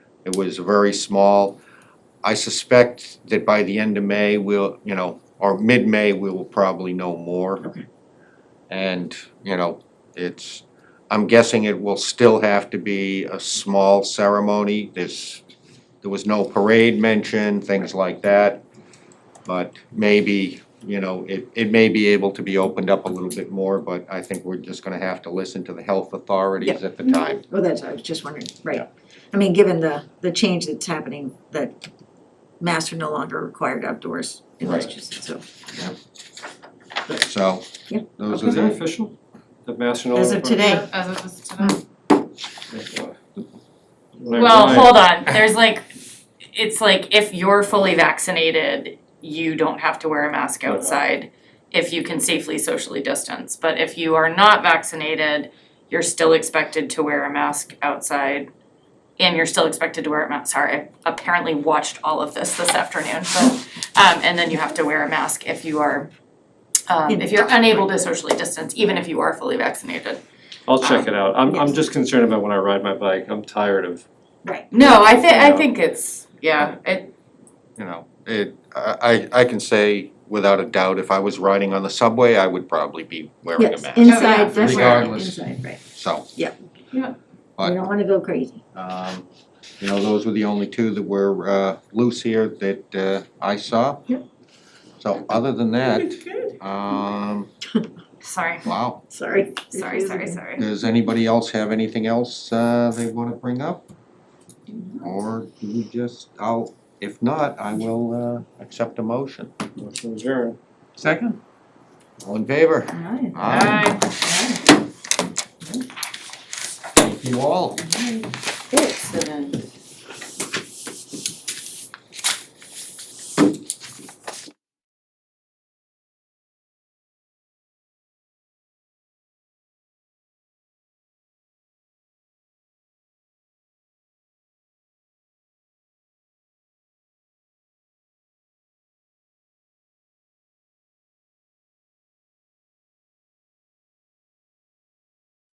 It was very small. I suspect that by the end of May, we'll, you know, or mid-May, we will probably know more. Okay. And, you know, it's, I'm guessing it will still have to be a small ceremony. There's, there was no parade mentioned, things like that. But maybe, you know, it, it may be able to be opened up a little bit more, but I think we're just gonna have to listen to the health authorities at the time. Well, that's, I was just wondering, Yeah. right. I mean, given the, the change that's happening, that masks are no longer required outdoors in Right. Massachusetts, so. So, Yeah. those are Is that the, official? The National. As of today. Yeah, As it was today. When I- Hmm. Well, when I- hold on, there's like, it's like if you're fully vaccinated, you don't have to wear a mask Right. outside if you can safely socially distance, but if you are not vaccinated, you're still expected to wear a mask outside. And you're still expected to wear a mask, sorry, I apparently watched all of this this afternoon, so, um, and then you have to wear a mask if you are, um, if you're unable to socially distance, even if you are fully vaccinated. I'll check it out. I'm, I'm Yes. just concerned about when I ride my bike. I'm tired of, No, I think, I Yeah. think it's, yeah, it, you know, it, I, I I can say without a doubt, if I was riding on the subway, I would probably be wearing a Yes, mask, yeah. inside, definitely, Regardless. inside, right. so. Yeah. Yeah. We But, don't wanna go crazy. um, you know, those were the only two that were, uh, loose here that, uh, I saw. Yep. So other than that, um, sorry. wow, Sorry. Sorry, sorry, sorry. does anybody else have anything else, uh, they wanna bring up? Or do we just, I'll, if not, I will, uh, accept a motion. motion adjourned. Second. All in favor? Alright, Aye. Bye. alright. Thank you all. Excellent.